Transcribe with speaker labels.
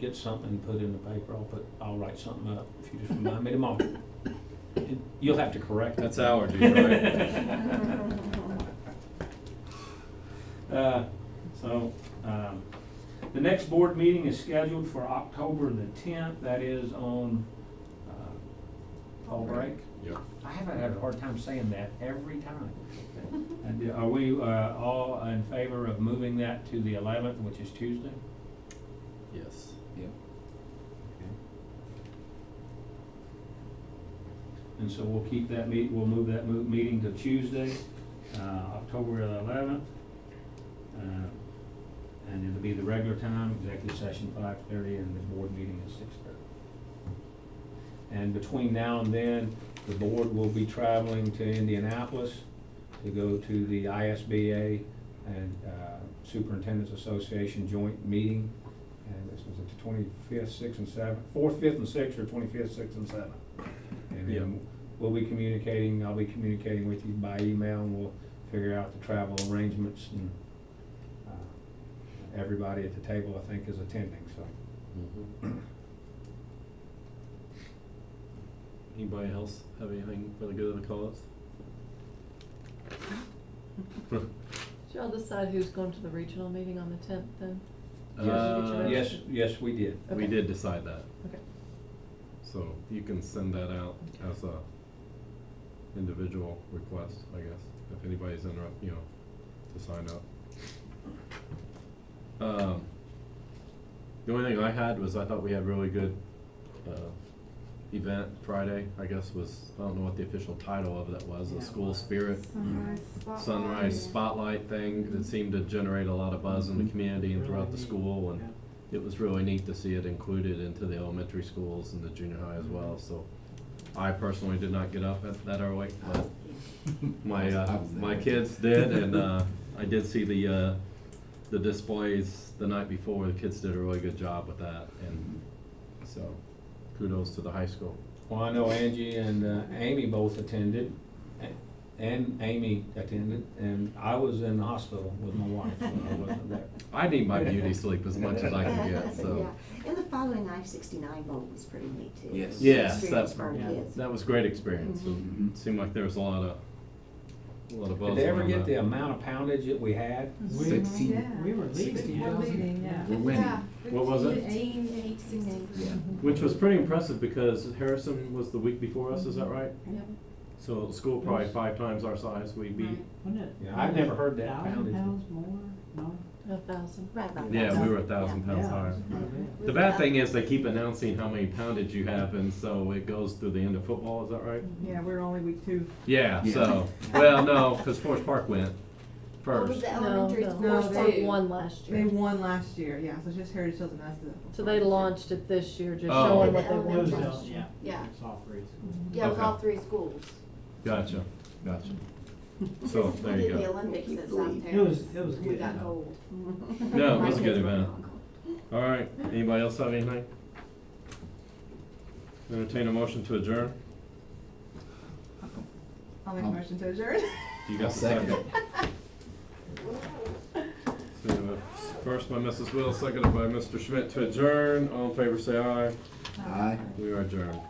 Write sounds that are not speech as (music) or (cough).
Speaker 1: get something put in the paper, I'll put, I'll write something up if you just remind me tomorrow. And You'll have to correct that.
Speaker 2: That's allergies, (laughs) right?
Speaker 1: Uh, So, um, the next board meeting is scheduled for October the tenth, that is on, uh, fall break.
Speaker 2: Yep.
Speaker 1: I haven't had a hard time saying that every time. And are we, uh, all in favor of moving that to the eleventh, which is Tuesday?
Speaker 2: Yes.
Speaker 1: And so we'll keep that meet, we'll move that mo- meeting to Tuesday, uh, October eleventh. Uh, And it'll be the regular time, executive session five thirty, and the board meeting at six thirty. And between now and then, the board will be traveling to Indianapolis to go to the ISBA and uh, Superintendent's Association joint meeting. And this was at the twenty-fifth, sixth, and seventh, fourth, fifth, and sixth, or twenty-fifth, sixth, and seventh. And
Speaker 2: Yeah.
Speaker 1: then we'll be communicating, I'll be communicating with you by email, and we'll figure out the travel arrangements and uh, everybody at the table, I think, is attending, so.
Speaker 2: Mm-hmm. Anybody else have anything for the good of the (laughs) cause?
Speaker 3: Did y'all decide who's going to the regional meeting on the tenth then?
Speaker 1: Yes.
Speaker 2: Uh,
Speaker 1: Yes, yes, we did.
Speaker 2: We
Speaker 3: Okay.
Speaker 2: did decide that,
Speaker 3: Okay.
Speaker 2: so you can send that out as a individual request, I guess, if anybody's interrupt, you know, to sign up. Um, the only thing I had was I thought we had really good, uh, event Friday, I guess was, I don't know what the official title of that was, the school spirit
Speaker 4: Sunrise
Speaker 3: Mm-hmm.
Speaker 4: spotlight.
Speaker 2: sunrise spotlight thing that seemed to generate a lot of buzz in the community and throughout the school and it was really neat to see it included into the elementary schools and the junior high as well, so I personally did not get up at that early, but
Speaker 1: (laughs)
Speaker 2: my uh, my kids did and uh I did see the uh the displays the night before, the kids did a really good job with that and so kudos to the high school.
Speaker 1: Well, I know Angie and uh, Amy both attended, a- and Amy attended, and I was in the hospital with my wife when I wasn't there.
Speaker 2: I need my beauty sleep as much as I can
Speaker 4: (laughs)
Speaker 2: get, so.
Speaker 4: Yeah, and the following I sixty-nine vote was pretty neat too.
Speaker 5: Yes.
Speaker 2: Yes,
Speaker 4: Experience
Speaker 2: that-
Speaker 4: for our
Speaker 1: yeah.
Speaker 4: kids.
Speaker 2: That was a great experience.
Speaker 5: Mhm.
Speaker 2: It seemed like there was a lot of, a lot of buzz.
Speaker 1: Did they ever
Speaker 2: around
Speaker 1: get
Speaker 2: that.
Speaker 1: the uh, amount of poundage that we had?
Speaker 5: Sixteen.
Speaker 6: We were leading.
Speaker 5: Sixteen. We're
Speaker 4: Yeah.
Speaker 5: winning.
Speaker 2: What was it?
Speaker 5: Yeah.
Speaker 2: Which was pretty impressive because Harrison was the week before us, is that right?
Speaker 3: Yep.
Speaker 2: So the school probably five times our size, we beat.
Speaker 6: Wasn't it?
Speaker 1: Yeah, I've never heard that
Speaker 6: Thousand
Speaker 1: pounded.
Speaker 6: pounds more, no?
Speaker 3: A thousand.
Speaker 4: Right about that.
Speaker 2: Yeah, we were a thousand
Speaker 4: Yeah.
Speaker 2: pounds
Speaker 6: Yeah.
Speaker 2: higher.
Speaker 6: Mhm.
Speaker 2: The bad thing is they keep announcing how many poundage you have and so it goes through the end of football, is that right?
Speaker 4: Mm-hmm.
Speaker 7: Yeah, we're only week two.
Speaker 2: Yeah,
Speaker 5: Yeah.
Speaker 2: so, well, no, because Forest Park went
Speaker 4: What was
Speaker 2: first.
Speaker 4: the
Speaker 3: No,
Speaker 4: elementary
Speaker 3: no,
Speaker 4: school?
Speaker 7: No,
Speaker 3: Forest Park
Speaker 7: they-
Speaker 3: won last
Speaker 7: They
Speaker 3: year.
Speaker 7: won last year, yeah, so it's just Heritage Hills and that's the.
Speaker 3: So they launched it this year, just
Speaker 2: Oh.
Speaker 3: showing what they
Speaker 4: Yeah,
Speaker 3: won
Speaker 4: that's
Speaker 3: last
Speaker 4: right.
Speaker 3: year.
Speaker 4: Yeah,
Speaker 6: It's all grade school.
Speaker 4: yeah, it was all
Speaker 2: Okay.
Speaker 4: three schools.
Speaker 2: Gotcha,
Speaker 4: (laughs)
Speaker 2: gotcha. So,
Speaker 4: We
Speaker 2: there you
Speaker 4: did the
Speaker 2: go.
Speaker 4: Olympics at
Speaker 5: Keep going.
Speaker 4: South
Speaker 6: It was- it was
Speaker 4: We
Speaker 6: good
Speaker 4: got
Speaker 6: enough.
Speaker 4: gold.
Speaker 2: No, it
Speaker 4: My
Speaker 2: was a
Speaker 4: kids (laughs)
Speaker 2: good
Speaker 4: were
Speaker 2: event.
Speaker 4: not gold.
Speaker 2: All right, anybody else have anything? Entertain a motion to adjourn?
Speaker 7: I'll make a motion to adjourn. (laughs)
Speaker 2: You got the second? So, we have a first by Mrs. Will, seconded by Mr. Schmidt to adjourn, all in favor say aye.
Speaker 5: Aye.
Speaker 2: We are adjourned.